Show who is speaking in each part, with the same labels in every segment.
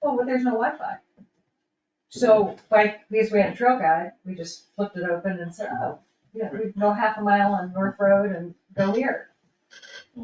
Speaker 1: Well, but there's no Wi-Fi. So, like, because we had a trail guide, we just flipped it open and said, oh, you know, we go half a mile on North Road and go here.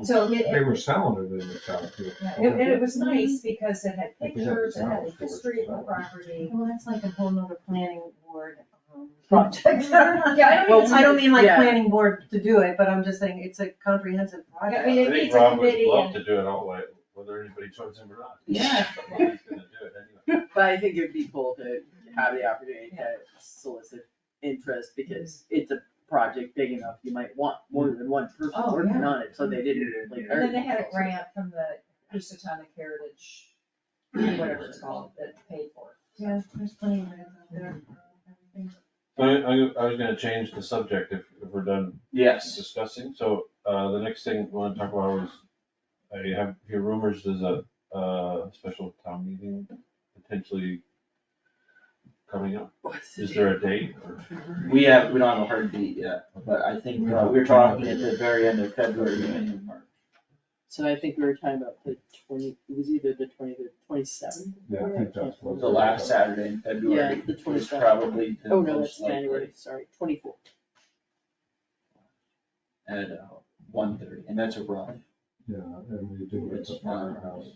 Speaker 1: So, I mean,
Speaker 2: They
Speaker 1: it,
Speaker 2: were selling it in the town too.
Speaker 1: yeah, it- and it was nice because it had
Speaker 2: Because it
Speaker 1: pictures, it had
Speaker 2: sounds
Speaker 1: a history of the property.
Speaker 3: Well, that's like a whole nother planning board um, project.
Speaker 1: Yeah, I don't
Speaker 3: Well, I
Speaker 1: even,
Speaker 3: don't mean like
Speaker 4: Yeah.
Speaker 3: planning board to do it, but I'm just saying it's a comprehensive
Speaker 1: I
Speaker 3: project.
Speaker 1: mean,
Speaker 5: I
Speaker 1: it
Speaker 5: think
Speaker 1: needs a
Speaker 5: Rob would
Speaker 1: committee
Speaker 5: love
Speaker 1: and,
Speaker 5: to do it all the way, whether anybody joins him or not.
Speaker 4: Yeah.
Speaker 5: Somebody's gonna do it anyway.
Speaker 4: But I think it'd be cool to have the opportunity to solicit interest because it's a project big enough, you might want more
Speaker 1: Mm-hmm.
Speaker 4: than one person
Speaker 3: Oh,
Speaker 4: working
Speaker 3: yeah.
Speaker 4: on it, so they didn't like.
Speaker 1: and then they had a
Speaker 4: everything.
Speaker 1: grant from the Houstonic Heritage, whatever it's called, that paid for
Speaker 3: Yeah, there's plenty of it out there.
Speaker 5: So I, I, I was gonna change the subject if, if we're done
Speaker 6: Yes.
Speaker 5: discussing, so, uh, the next thing I wanna talk about was, I have, hear rumors there's a, uh, special town meeting potentially coming up.
Speaker 4: What's the
Speaker 5: Is there a date or?
Speaker 6: We have, we don't have a hard beat yet, but I think, uh, we were talking at the very end of February, beginning of March.
Speaker 4: So I think we were talking about the twenty, it was either the twenty, the twenty-seventh.
Speaker 2: Yeah, I think that's what.
Speaker 6: The last Saturday in
Speaker 4: Yeah,
Speaker 6: February
Speaker 4: the
Speaker 6: was
Speaker 4: 27th.
Speaker 6: probably the
Speaker 4: Oh, no, that's
Speaker 6: most
Speaker 4: January,
Speaker 6: likely
Speaker 4: sorry, twenty-four.
Speaker 6: at, uh, one thirty, and that's a run.
Speaker 2: Yeah, and we do it at
Speaker 6: uh,
Speaker 2: the firehouse.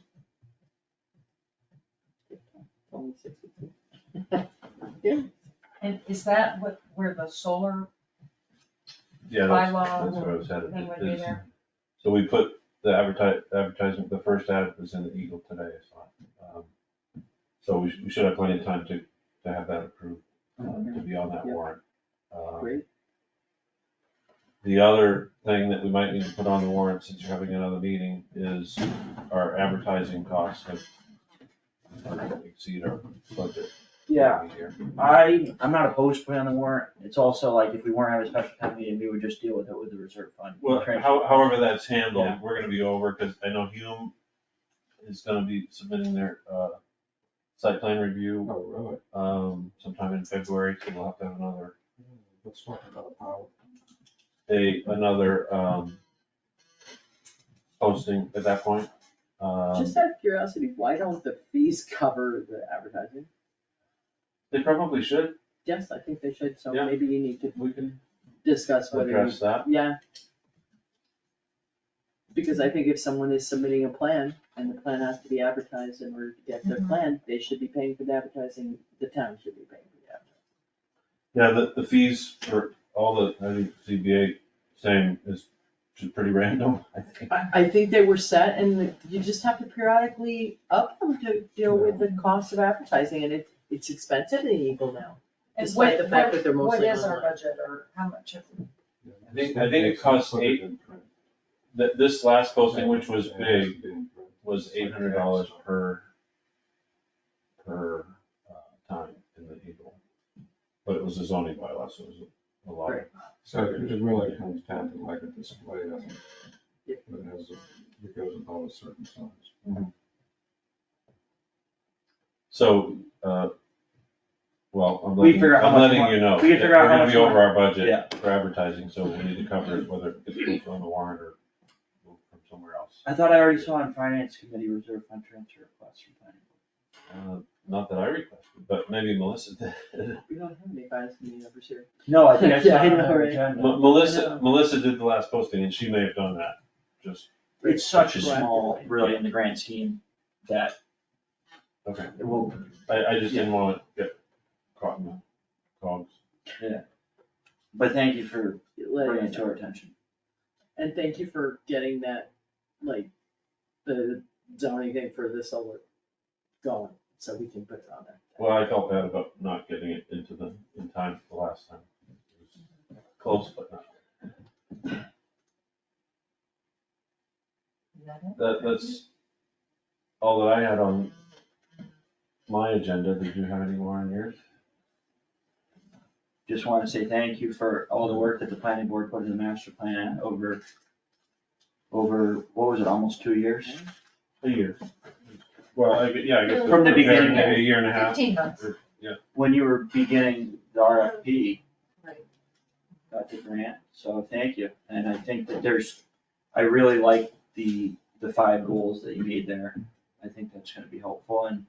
Speaker 5: Um,
Speaker 1: it. And is that what, where the solar,
Speaker 5: Yeah, that's,
Speaker 1: Bylaw
Speaker 5: that's what I was headed.
Speaker 1: thing would be
Speaker 5: It's-
Speaker 1: there.
Speaker 5: So we put the advertise, advertisement, the first ad was in the Eagle today, so. um, So we should, we should have plenty of time to, to have that approved, uh, to be on that
Speaker 4: Yeah.
Speaker 5: warrant. Um,
Speaker 4: Great.
Speaker 5: The other thing that we might need to put on the warrant since you're having another meeting is our advertising costs have are gonna exceed our budget.
Speaker 6: Yeah,
Speaker 5: for the year.
Speaker 6: I, I'm not opposed to putting on the warrant, it's also like, if we weren't having a special town meeting, we would just deal with it with the reserve fund.
Speaker 5: Well,
Speaker 6: Transfer.
Speaker 5: how, however that's handled,
Speaker 6: Yeah.
Speaker 5: we're gonna be over, cause I know Hume is gonna be submitting their, uh, site plan review,
Speaker 2: Oh, really?
Speaker 5: um, sometime in February, so we'll have to have another,
Speaker 2: Hmm, Let's talk about power.
Speaker 5: a, another, um, posting at that point. Um,
Speaker 4: Just out of curiosity, why don't the fees cover the advertising?
Speaker 5: they probably should,
Speaker 4: Yes, I think they should, so
Speaker 5: Yeah.
Speaker 4: maybe you need to
Speaker 5: we can
Speaker 4: discuss whether you
Speaker 5: address that.
Speaker 4: Yeah. Because I think if someone is submitting a plan and the plan has to be advertised in order to get their plan, they should be paying for the advertising, the town should be paying for the advertising.
Speaker 5: Yeah, the, the fees for all the, I think CBA saying is just pretty random, I think.
Speaker 4: I, I think they were set and you just have to periodically up them to deal with the cost of advertising and it, it's expensive in Eagle now.
Speaker 1: and
Speaker 4: Despite
Speaker 1: what,
Speaker 4: the fact that
Speaker 1: what,
Speaker 4: they're
Speaker 1: what
Speaker 4: mostly
Speaker 1: is our
Speaker 4: online.
Speaker 1: budget or how much of
Speaker 5: I think- I think it costs eight- That, this last posting, which was big, was eight hundred dollars per, per uh, time in the Eagle. But it was a zoning bylaw, so it was a lot.
Speaker 4: Right.
Speaker 2: So it just really comes down to like a display, I think.
Speaker 4: Yeah.
Speaker 2: That has, a- it goes above a certain size.
Speaker 5: So, uh, well, I'm
Speaker 6: We
Speaker 5: letting,
Speaker 6: figure out how
Speaker 5: I'm
Speaker 6: much
Speaker 5: letting
Speaker 6: more-
Speaker 5: you know,
Speaker 6: we can
Speaker 5: that
Speaker 6: figure out
Speaker 5: we're
Speaker 6: how
Speaker 5: gonna
Speaker 6: much
Speaker 5: be
Speaker 6: more-
Speaker 5: over our budget
Speaker 6: Yeah.
Speaker 5: for advertising, so we need to cover it, whether it's on the warrant or from somewhere else.
Speaker 6: I thought I already saw on finance committee reserve fund transfer request from planning.
Speaker 5: Uh, Not that I requested, but maybe Melissa did.
Speaker 4: We don't have any finance meeting members here.
Speaker 6: No, I think I
Speaker 4: Yeah,
Speaker 6: saw
Speaker 4: I
Speaker 6: it on
Speaker 4: know,
Speaker 6: our
Speaker 4: right.
Speaker 6: agenda.
Speaker 5: M- Melissa,
Speaker 4: know.
Speaker 5: Melissa did the last posting and she may have done that, just,
Speaker 6: It's such a small, really, in the grand scheme, that
Speaker 5: okay.
Speaker 6: it will,
Speaker 5: I, I just didn't wanna get caught in the cogs.
Speaker 6: but thank you for
Speaker 4: Like-
Speaker 6: bringing it to our attention.
Speaker 4: And thank you for getting that, like, the zoning thing for the solar going, so we can put it on there.
Speaker 5: Well, I felt bad about not getting it into the, in time for the last time. It was Close, but not.
Speaker 1: that it?
Speaker 5: That, that's all that I had on my agenda. Did you have any more on yours?
Speaker 6: Just wanna say thank you for all the work that the planning board put in the master plan over, over, what was it, almost two years?
Speaker 5: A year. Well, I, gue- yeah, I guess.
Speaker 6: From the beginning.
Speaker 5: Maybe a year and a half.
Speaker 1: Fifteen months.
Speaker 6: When you were beginning the RFP.
Speaker 1: Right.
Speaker 6: Got the grant, so thank you, and I think that there's, I really like the, the five goals that you made there. I think that's gonna be helpful, and